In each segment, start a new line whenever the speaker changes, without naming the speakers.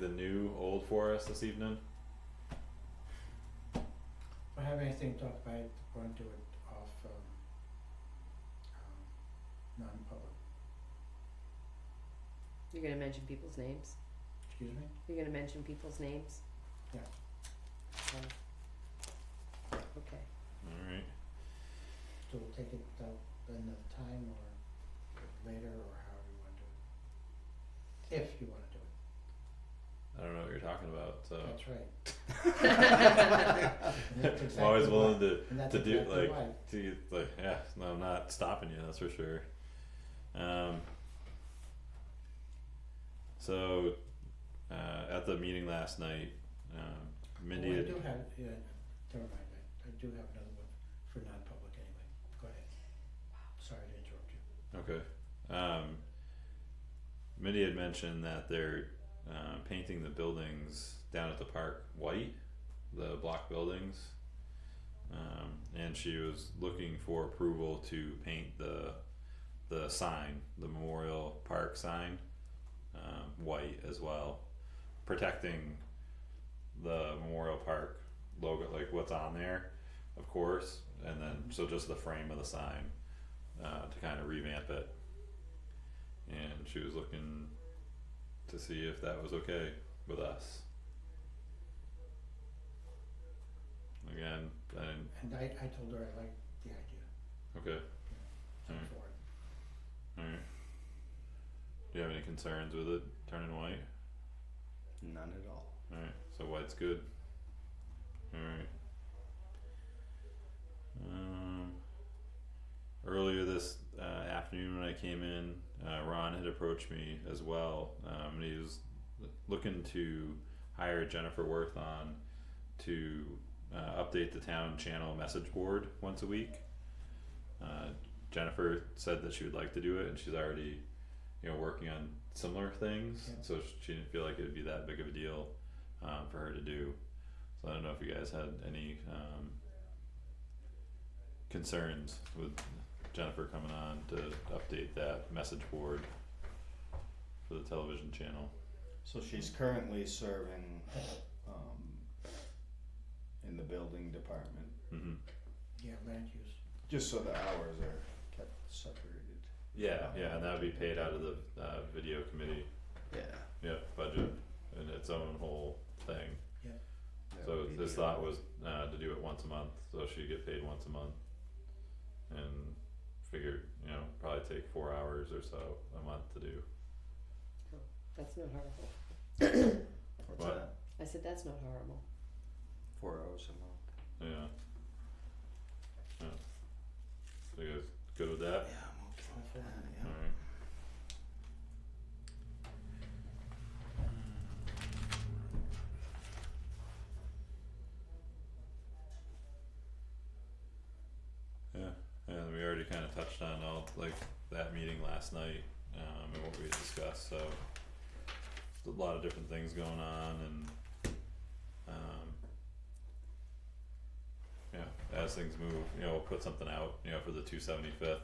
the new old for us this evening?
I have anything to talk about, we're gonna do it off um um non-public,
You're gonna mention people's names?
excuse me?
You're gonna mention people's names?
Yeah.
Okay. Um, Okay,
Alright,
So we'll take it uh another time or later or however you wanna do it. If you wanna do it,
I don't know what you're talking about, so.
that's right. And that's
I'm always
exactly
willing
why-
to,
And that's
to do,
exactly
like,
why,
to, like, yeah, no, I'm not stopping you, that's for sure. Um. So, uh, at the meeting last night, um, Mindy
Oh, I
had-
do have, yeah, never mind, I I do have another one for non-public anyway, go ahead. Sorry to interrupt you.
Okay. Um, Mindy had mentioned that they're um, painting the buildings down at the park white, the block buildings. Um, and she was looking for approval to paint the the sign, the memorial park sign, um, white as well, protecting the memorial park logo, like what's on there, of course, and then so just the frame of the sign uh, to kind of revamp it. And she was looking to see if that was okay with us. Again, I didn't,
And I I told her I liked the idea,
okay,
I'm
Mm.
for it.
alright. Do you have any concerns with it turning white?
None at all.
Alright, so white's good. Alright. Um, earlier this uh, afternoon when I came in, uh, Ron had approached me as well. Um, and he was l- looking to hire Jennifer Worth on to uh, update the town channel message board once a week. Uh, Jennifer said that she would like to do it, and she's already, you know, working on similar things.
Yeah.
So she didn't feel like it would be that big of a deal um, for her to do. So I don't know if you guys had any um, concerns with Jennifer coming on to update that message board for the television channel.
So she's currently serving um, in the building department,
hmm
Yeah, land use.
just so the hours are kept separated.
Yeah, yeah, and that would be paid out of the uh, video committee,
Yeah.
yeah, budget in its own whole thing.
that
So
would be
this
the-
thought was uh, to do it once a month, so she'd get paid once a month, and figured you know probably take four hours or so a month to do.
that's not horrible.
What's
What?
that?
I said, that's not horrible.
Four hours a month.
Yeah. Yeah. So you guys good with that?
Yeah, I'm okay with that. Yeah.
Alright. Yeah, and we already kinda touched on all, like, that meeting last night, um, and what we discussed, so. there's A lot of different things going on and, um. Yeah, as things move, you know, we'll put something out, you know, for the two seventy-fifth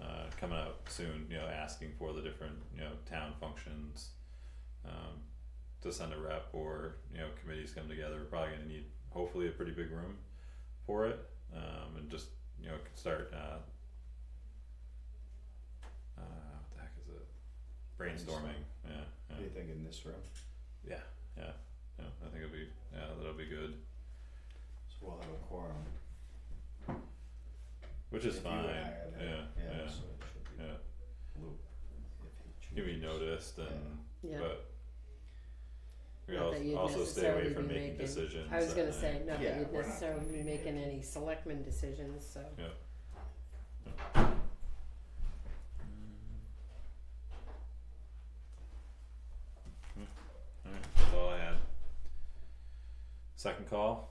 uh, coming out soon, you know, asking for the different, you know, town functions. Um, to send a rep or, you know, committees come together, we're probably gonna need hopefully a pretty big room for it, um, and just, you know, could start, uh. Uh, what the heck is it? Brainstorming, yeah, yeah.
What do you think in this room?
Yeah, yeah, yeah, I think it'll be, yeah, that'll be good,
So we'll have a quorum.
which is
If you and
fine,
I are there.
yeah, yeah,
Yeah, so it should be
yeah,
loop if he
give me
chooses.
noticed and,
Yeah.
but. We
Not that
al-
you'd
also stay away
necessarily
from
be
making
making-
decisions
I was
that
gonna
night.
say, not
Yeah,
that you'd
we're not
necessarily
gonna
be
be
making
making-
any selectmen decisions, so.
Yeah. Alright, that's all I had. Second call?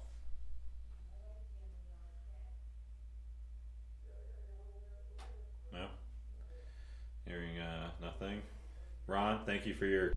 No? Hearing uh nothing. Ron, thank you for your